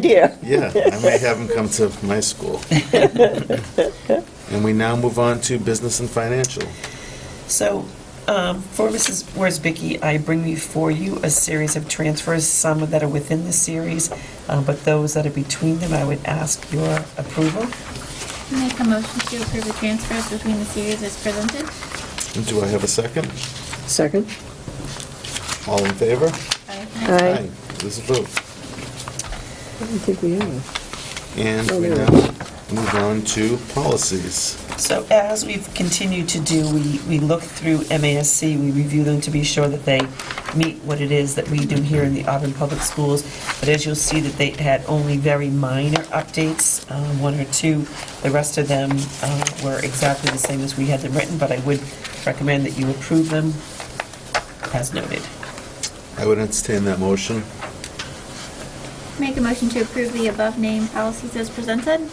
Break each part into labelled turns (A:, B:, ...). A: idea.
B: Yeah, I may have them come to my school. And we now move on to business and financial.
C: So, um, for Mrs. Worsbicky, I bring before you a series of transfers, some that are within the series, uh, but those that are between them, I would ask your approval.
D: Make a motion to approve the transfers between the series as presented.
B: And Do I have a second?
A: Second?
B: All in favor?
A: Aye.
B: There's a vote.
A: I don't think we have.
B: And
A: Oh,
B: we
A: there.
B: now move on to policies.
C: So as we've continued to do, we, we look through MASC, we review them to be sure that they meet what it is that we do here in the Auburn Public Schools. But as you'll see that they had only very minor updates, uh, one or two. The rest of them uh, were exactly the same as we had them written, but I would recommend that you approve them as noted.
B: I would entertain that motion.
D: Make a motion to approve the above named policies as presented.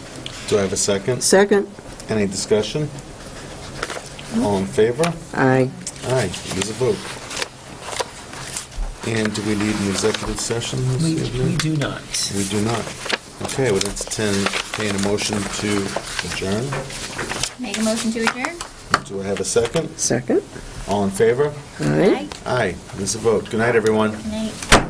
B: Do I have a second?
A: Second?
B: Any discussion? All in favor?
A: Aye.
B: Aye, there's a vote. And do we need an executive session this
C: We
B: evening?
C: we do not.
B: We do not. Okay, I would entertain entertain a motion to adjourn.
D: Make a motion to adjourn.
B: Do I have a second?
A: Second?
B: All in favor?
A: Aye.
B: Aye, there's a vote. Good night, everyone.
D: Aye. Night.